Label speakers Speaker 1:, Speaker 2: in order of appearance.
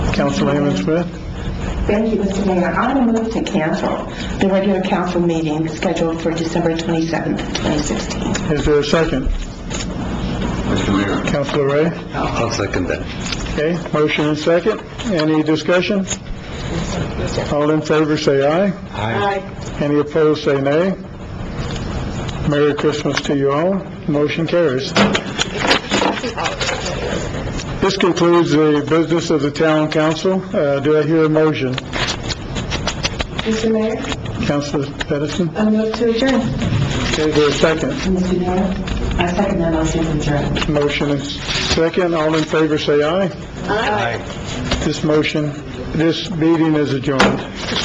Speaker 1: Councilwoman Smith?
Speaker 2: Thank you, Mr. Mayor. I move to cancel the regular council meeting scheduled for December 27th, 2016.
Speaker 1: Is there a second?
Speaker 3: Mr. Mayor.
Speaker 1: Councilor Ray?
Speaker 3: I'll second that.
Speaker 1: Okay, motion and second. Any discussion? All in favor, say aye. Any opposed, say nay. Merry Christmas to you all. Motion carries. This concludes the business of the town council. Uh, do I hear a motion?
Speaker 2: Mr. Mayor,
Speaker 1: Councilor Edison?
Speaker 2: I move to adjourn.
Speaker 1: Okay, is there a second?
Speaker 2: Mr. Mayor, I second that motion to adjourn.
Speaker 1: Motion and second. All in favor, say aye. This motion, this meeting is adjourned.